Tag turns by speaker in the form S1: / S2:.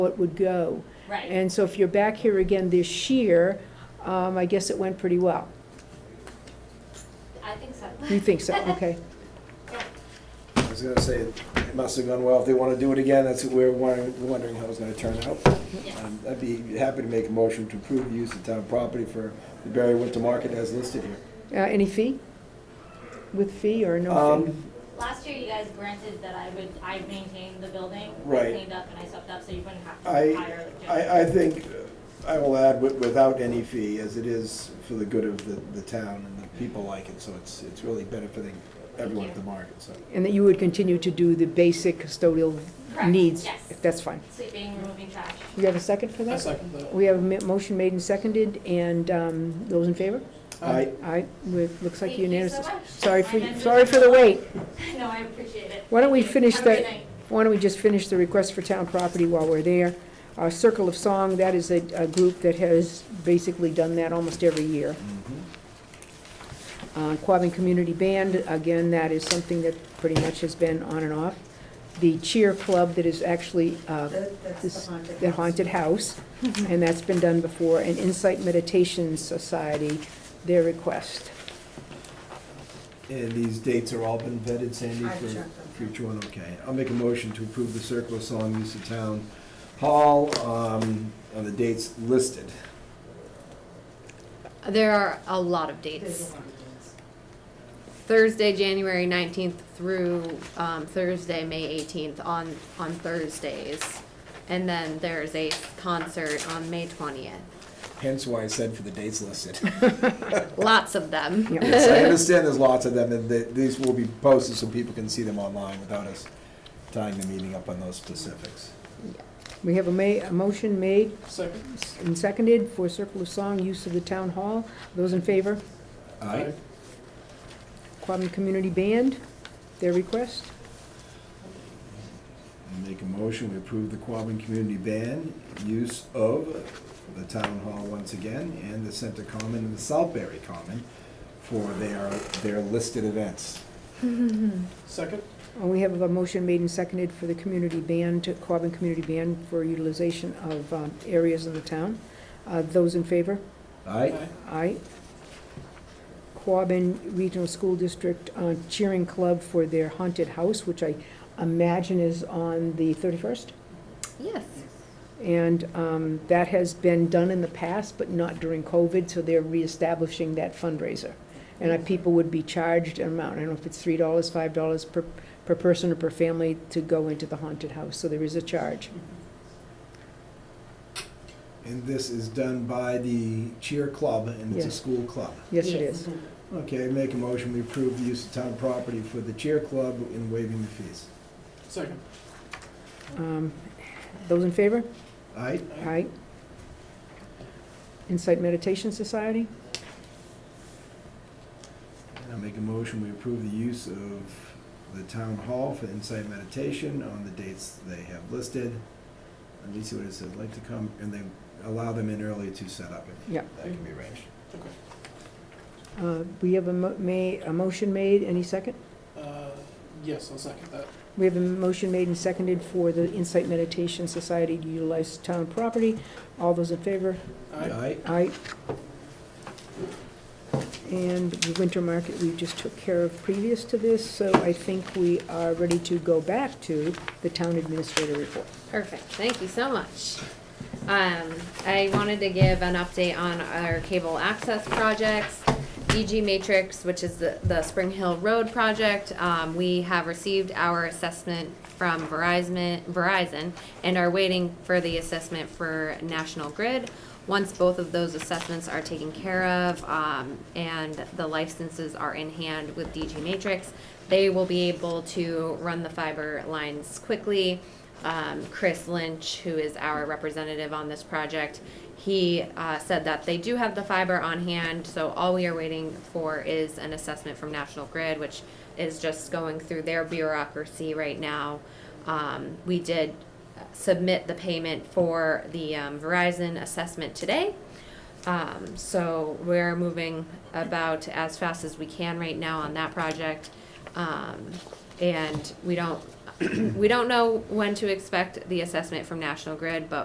S1: what would go.
S2: Right,
S1: And so if you're back here again this year, um, I guess it went pretty well.
S2: I think so.
S1: You think so, okay.
S3: I was gonna say, it must have gone well. If they wanna do it again, that's, we're wondering, wondering how it's gonna turn out.
S2: Yeah.
S3: Um, I'd be happy to make a motion to approve the use of town property for the Barry Winter Market as listed here.
S1: Uh, Any fee? With fee or no fee?
S3: Um,
S2: Last year you guys granted that I would, I maintained the building.
S3: Right.
S2: Cleaned up and I swept up, so you wouldn't have to
S3: I,
S2: hire like.
S3: I, I think, uh, I will add wi- without any fee, as it is for the good of the, the town and the people like it, so it's, it's really benefiting everyone at the market, so.
S1: And that you would continue to do the basic custodial
S2: Correct,
S1: needs?
S2: yes.
S1: if That's fine.
S2: Sweeping, removing trash.
S1: You have a second for that?
S4: second that.
S1: We have a mi- motion made and seconded, and um, those in favor?
S3: I,
S1: Aye, with, looks like
S2: Thank you
S1: unanimous.
S2: so much.
S1: Sorry for,
S2: I'm gonna-
S1: sorry for the wait.
S2: No, I appreciate it.
S1: Why don't we
S2: Thank you.
S1: finish
S2: Have a good
S1: that-
S2: night.
S1: Why don't we just finish the request for town property while we're there? Our Circle of Song, that is a, a group that has basically done that almost every year. Uh, Quabbin Community Band, again, that is something that pretty much has been on and off. The Cheer Club that is actually, uh,
S5: That- That's
S1: this-
S5: the haunted.
S1: the
S5: house.
S1: Haunted House, and that's been done before, and Insight Meditation Society, their request.
S3: and these dates are all been vetted, Sandy,
S5: I've
S3: for
S5: checked them.
S3: future one, okay. I'll make a motion to approve the Circle of Song use of town hall, um, on the dates listed.
S6: There are a lot of
S5: There's a
S6: dates.
S5: haunted house.
S6: Thursday, January 19th through um, Thursday, May 18th on, on Thursdays. And then there's a concert on May 20th.
S3: Hence why I said for the dates listed.
S6: Lots of them.
S1: Yeah.
S3: Yes, I understand there's lots of them, and they- these will be posted so people can see them online without us tying the meeting up on those specifics.
S1: We have a ma, a motion made
S4: Second.
S1: and seconded for Circle of Song, use of the town hall. Those in favor?
S3: Aye.
S1: Quabbin Community Band, their request.
S3: I Make a motion, we approve the Quabbin Community Band use of the town hall once again, and the Center Common and the Southbury Common for their, their listed events.
S4: Second.
S1: And we have a motion made and seconded for the community band, to Quabbin Community Band, for utilization of um, areas in the town. Uh, Those in favor?
S3: Aye?
S1: Aye. Quabbin Regional School District uh, Cheering Club for their haunted house, which I imagine is on the 31st.
S6: Yes.
S1: And um, that has been done in the past, but not during COVID, so they're reestablishing that fundraiser. And uh, people would be charged an amount, I don't know if it's $3, $5 per, per person or per family to go into the haunted house, so there is a charge.
S3: And this is done by the cheer club, and it's a
S1: Yes.
S3: school club.
S1: Yes, it
S6: Yes.
S1: is.
S3: Okay, I make a motion, we approve the use of town property for the cheer club in waiving the fees.
S4: Second.
S1: Um, Those in favor?
S3: Aye?
S1: Aye. Insight Meditation Society?
S3: And I make a motion, we approve the use of the town hall for insight meditation on the dates they have listed. Let me see what it says, like to come, and they allow them in early to set up. if
S1: Yeah.
S3: That can be arranged.
S4: Okay.
S1: Uh, We have a mo- ma, a motion made, any second?
S4: Uh, yes, I'll second that.
S1: We have a motion made and seconded for the Insight Meditation Society to utilize town property. All those in favor?
S4: Aye.
S1: Aye. And the winter market we just took care of previous to this, so I think we are ready to go back to the town administrator report.
S6: Perfect. Thank you so much. Um, I wanted to give an update on our cable access projects. EG Matrix, which is the, the Spring Hill Road project, um, we have received our assessment from Verizon, Verizon and are waiting for the assessment for National Grid. Once both of those assessments are taken care of, um, and the licenses are in hand with DG Matrix, they will be able to run the fiber lines quickly. Um, Chris Lynch, who is our representative on this project, he uh, said that they do have the fiber on hand, so all we are waiting for is an assessment from National Grid, which is just going through their bureaucracy right now. Um, we did submit the payment for the um, Verizon assessment today. Um, so we're moving about as fast as we can right now on that project. Um, and we don't, we don't know when to expect the assessment from National Grid, but